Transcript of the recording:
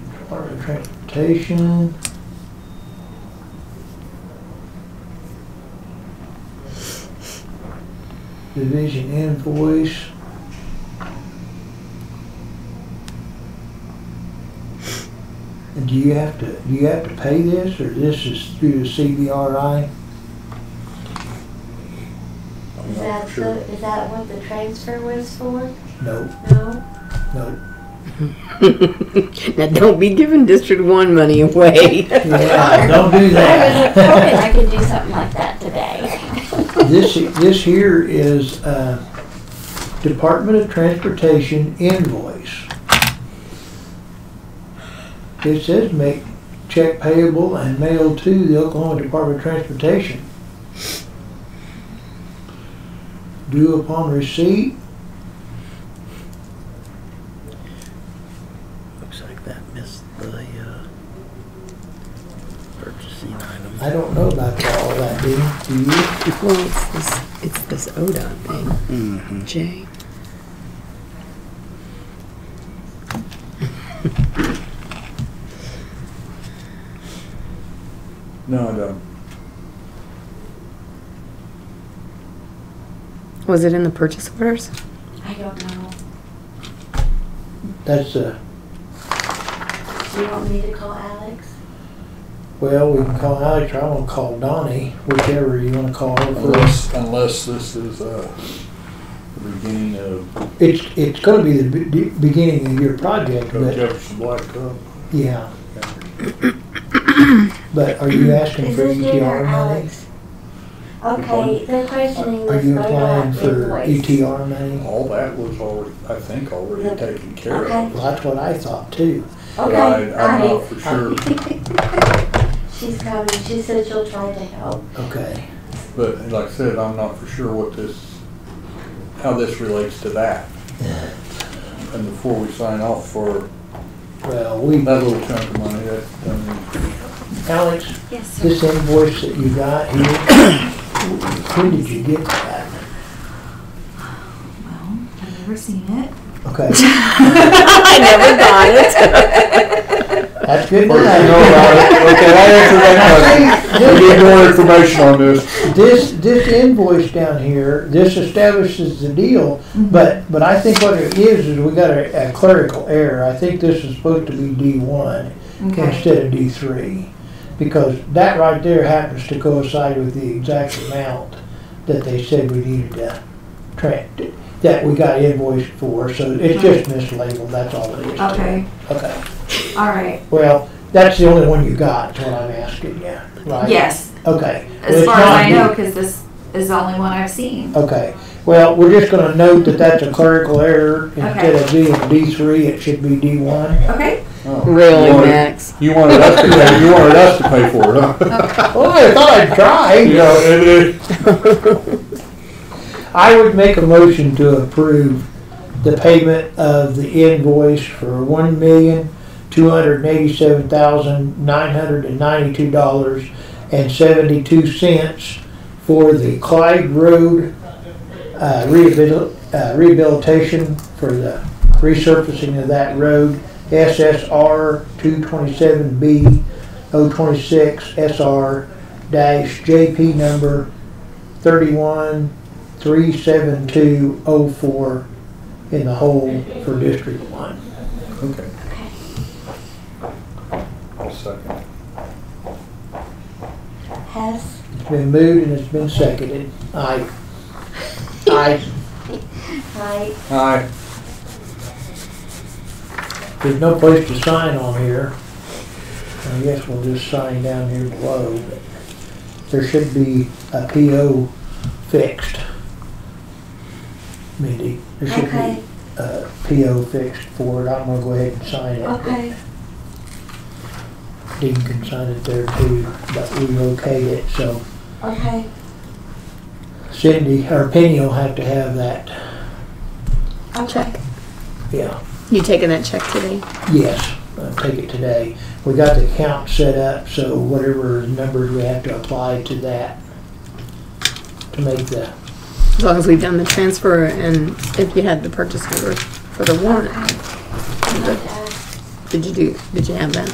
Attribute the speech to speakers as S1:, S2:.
S1: Department of Transportation. Division invoice. And do you have to, do you have to pay this, or this is through the CVRI?
S2: Is that, the, is that what the transfer was for?
S1: No,
S2: No?
S1: no.
S3: Now, don't be giving District One money away.
S1: Yeah, Don't do
S2: I
S1: that.
S2: was hoping I could do something like that today.
S1: This, this here is, uh, Department of Transportation invoice. It says make check payable and mail to the Oklahoma Department of Transportation. Due upon receipt,
S3: Looks like that missed the, uh, purchasing item.
S1: I don't know about all that, do you? Do you?
S3: Well, it's this, it's this ODOT thing, Jay.
S4: No, I don't.
S3: Was it in the purchase orders?
S2: I don't know.
S1: That's, uh,
S2: Do you want me to call Alex?
S1: well, we can call Alex, or I'm gonna call Donnie, whichever you wanna call first.
S4: Unless, unless this is, uh, the beginning of
S1: It's, it's gonna be the be- beginning of your project,
S4: Coach
S1: but.
S4: Jefferson Blacktop.
S1: Yeah. But are you asking
S2: Is
S1: for
S2: this Jen or
S1: ETR money?
S2: Alex? Okay, they're questioning
S1: Are
S2: this
S1: you applying
S2: Bodoc
S1: for
S4: E
S2: invoice.
S1: ETR money?
S4: All that was already, I think, already taken care
S2: Okay.
S4: of.
S1: Well, that's what I thought too.
S4: But
S2: Okay,
S4: I, I'm not for sure,
S2: sure. She's coming, she said she'll try to help.
S1: Okay.
S4: but like I said, I'm not for sure what this, how this relates to that. And before we sign off for
S1: Well, we,
S4: that little chunk of money, that, I mean,
S1: Alex,
S2: Yes,
S1: this invoice that you got here, when did you get that?
S5: Well, I've never seen it.
S1: Okay,
S3: I never got it.
S1: that's good. to
S4: Or, you know,
S1: know.
S4: I- okay, I answered that question. We need more information on this.
S1: This, this invoice down here, this establishes the deal,
S5: Mm-hmm.
S1: but, but I think what it is, is we got a a clerical error. I think this is supposed to be D one. instead of D three. Because that right there happens to coincide with the exact amount that they said we needed to track, that we got invoiced for, so it's just mislabeled, that's all it is. to it.
S5: Okay,
S1: Okay,
S5: all right,
S1: well, that's the only one you got, is what I'm asking you, right?
S5: yes,
S1: Okay. Well,
S5: as
S1: it's
S5: far as
S1: not
S5: I
S1: D.
S5: know, because this is the only one I've seen.
S1: Okay, well, we're just gonna note that that's a clerical error, instead
S5: Okay.
S1: of being D three, it should be D one.
S5: Okay,
S4: Oh, you
S3: Really,
S4: wanted-
S3: Max?
S4: You wanted us to pay, you wanted us to pay for it, huh?
S1: Oh, I thought I'd try.
S4: You know, it, it,
S1: I would make a motion to approve the payment of the invoice for one million, two hundred and eighty-seven thousand, nine hundred and ninety-two dollars and seventy-two cents for the Clyde Road, uh, rehabil- uh, rehabilitation for the resurfacing of that road, SSR two twenty-seven B O twenty-six SR dash JP number thirty-one 37204 in the hole for District 1.
S4: Okay. I'll second.
S2: Hess,
S1: It's been moved and it's been seconded. Aye. Aye.
S2: hi,
S4: Aye.
S1: There's no place to sign on here. I guess we'll just sign down here below. but There should be a PO fixed. Mindy, there should
S2: okay,
S1: be a PO fixed for it. I'm gonna go ahead and sign it.
S2: okay,
S1: Dean can sign it there too, but we okayed it, so.
S2: okay.
S1: Cindy, or Penny will have to have that,
S2: Okay.
S1: yeah,
S3: You taking that check today?
S1: yes, I'll take it today. We got the count set up, so whatever numbers we have to apply to that to make the,
S3: As long as we've done the transfer and if you had the purchase order for the warrant.
S2: Okay.
S3: Did you do, did you have that?